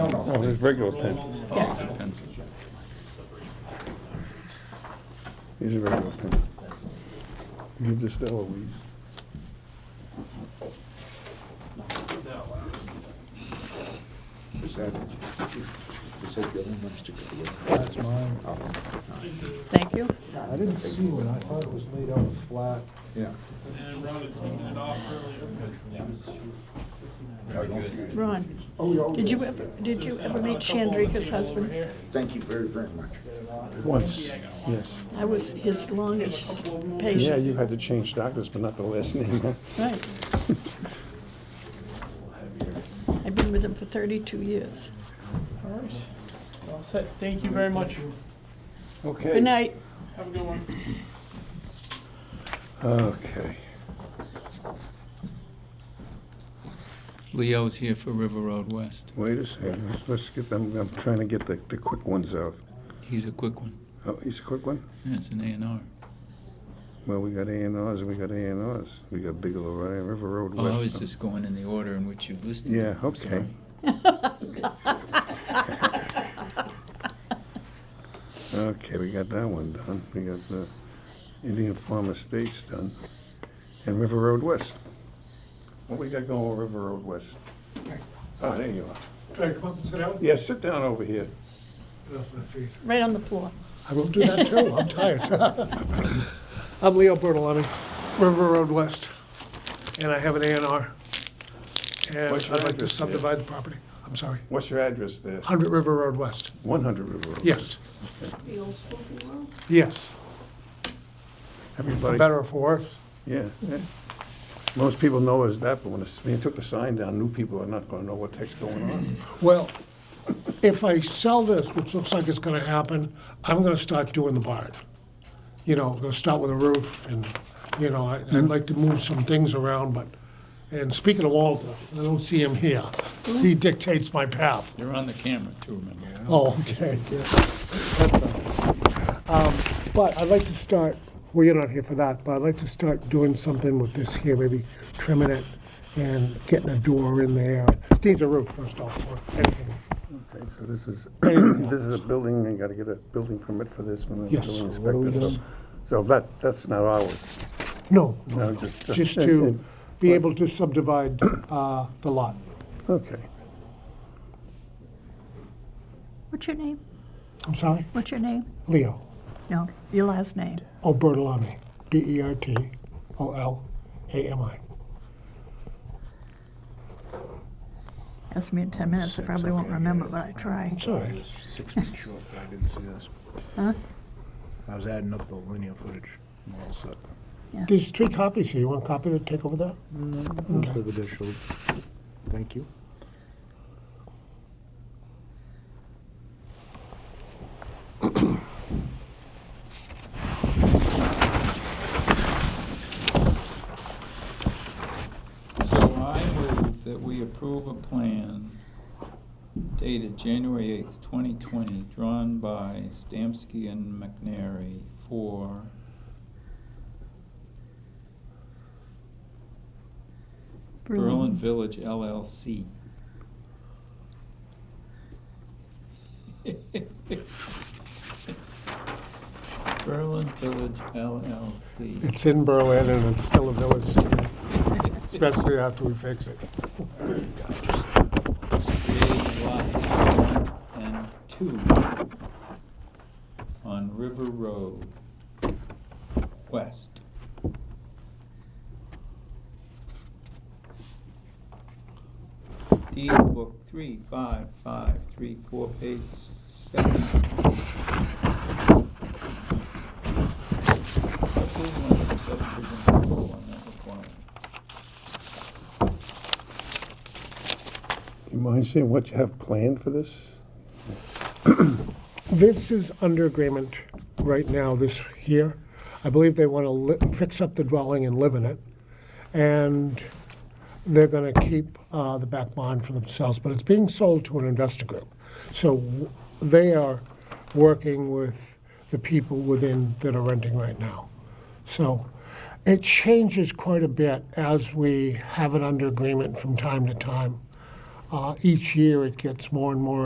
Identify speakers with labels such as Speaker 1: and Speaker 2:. Speaker 1: Oh, there's regular pen.
Speaker 2: Oh, it's a pencil.
Speaker 1: Here's a regular pen. Give this to Eloise.
Speaker 3: Is that, is that the other ones to go with?
Speaker 4: That's mine.
Speaker 5: Thank you.
Speaker 4: I didn't see one. I thought it was laid out flat.
Speaker 3: Yeah.
Speaker 5: Ron, did you ever, did you ever meet Chandrika's husband?
Speaker 3: Thank you very, very much.
Speaker 1: Once, yes.
Speaker 5: I was his longest patient.
Speaker 1: Yeah, you had to change doctors, but not the last name, huh?
Speaker 5: Right. I've been with him for thirty-two years.
Speaker 6: All right. All set. Thank you very much.
Speaker 1: Okay.
Speaker 5: Good night.
Speaker 6: Have a good one.
Speaker 1: Okay.
Speaker 2: Leo's here for River Road West.
Speaker 1: Wait a second. Let's, let's get, I'm, I'm trying to get the, the quick ones out.
Speaker 2: He's a quick one.
Speaker 1: Oh, he's a quick one?
Speaker 2: Yeah, it's an A and R.
Speaker 1: Well, we got A and Rs, and we got A and Rs. We got Bigelow, right, River Road
Speaker 2: Oh, I was
Speaker 1: West.
Speaker 2: just going in the order in which you listed.
Speaker 1: Yeah,
Speaker 2: them. I'm
Speaker 1: okay.
Speaker 2: sorry.
Speaker 1: Okay, we got that one done. We got the Indian Farm Estates done. And River Road West. What we got going with River Road West? Oh, there you are.
Speaker 7: Can I come up and sit down?
Speaker 1: Yeah, sit down over here.
Speaker 7: Get off my feet.
Speaker 5: Right on the floor.
Speaker 4: I will do that too. I'm tired.
Speaker 7: I'm Leo Bertolami, River Road West, and I have an A and R. And
Speaker 1: What's your
Speaker 7: I'd like to
Speaker 1: address, Leo?
Speaker 7: subdivide the property. I'm sorry,
Speaker 1: What's your address there?
Speaker 7: 100 River Road West.
Speaker 1: 100 River Road.
Speaker 7: Yes, yes,
Speaker 1: Everybody,
Speaker 7: better or for worse.
Speaker 1: yeah. yeah. Most people know it as that, but when it's- when you took the sign down, new people are not going to know what the heck's going
Speaker 7: Mm-hmm.
Speaker 1: on.
Speaker 7: Well, if I sell this, which looks like it's going to happen, I'm going to start doing the barn. You know, I'm going to start with a roof, and you know, I, I'd like to move some things around. But and speaking of Walter, I don't see him here. He dictates my path.
Speaker 2: You're on the camera too, remember?
Speaker 7: Oh, okay. Um, But I'd like to start, well, you're not here for that, but I'd like to start doing something with this here, maybe trimming it and getting a door in there. These are roof, first off, or anything.
Speaker 1: Okay, so this is, this is a building, and you got to get a building permit for this from the
Speaker 7: Yes,
Speaker 1: building
Speaker 7: so what are we
Speaker 1: inspector. so-
Speaker 7: doing?
Speaker 1: So that, that's not ours.
Speaker 7: No,
Speaker 1: No,
Speaker 7: no,
Speaker 1: just- just-
Speaker 7: just to be able to subdivide uh, the lot.
Speaker 1: Okay.
Speaker 5: What's your name?
Speaker 7: I'm sorry?
Speaker 5: What's your name?
Speaker 7: Leo,
Speaker 5: No, your last name.
Speaker 7: oh, Bertolami, E B-E-R-T-O-L-A-M-I.
Speaker 5: Ask me in ten minutes. I probably won't remember, but I try.
Speaker 7: Sorry.
Speaker 8: Six feet short, I didn't see this.
Speaker 5: Huh?
Speaker 8: I was adding up the linear footage. I'm all set.
Speaker 7: There's three copies here. You want a copy to take over there?
Speaker 8: Live additional. Thank you.
Speaker 2: So I move that we approve a plan dated January eighth, twenty twenty, drawn by Stamsky and McNary for Berlin Village LLC. Berlin Village LLC.
Speaker 7: It's in Berlin and it's still a village to me, especially after we fix it.
Speaker 2: creating lots one and two on River Road West. Deed book three, five, five, three, four, page seven. Approval under subdivision control on that requirement.
Speaker 1: You mind saying what you have planned for this?
Speaker 7: This is under agreement right now, this here. I believe they want to li- fix up the dwelling and live in it. And they're going to keep uh, the back barn for themselves, but it's being sold to an investor group. So w- they are working with the people within that are renting right now. So it changes quite a bit as we have it under agreement from time to time. Uh, Each year, it gets more and more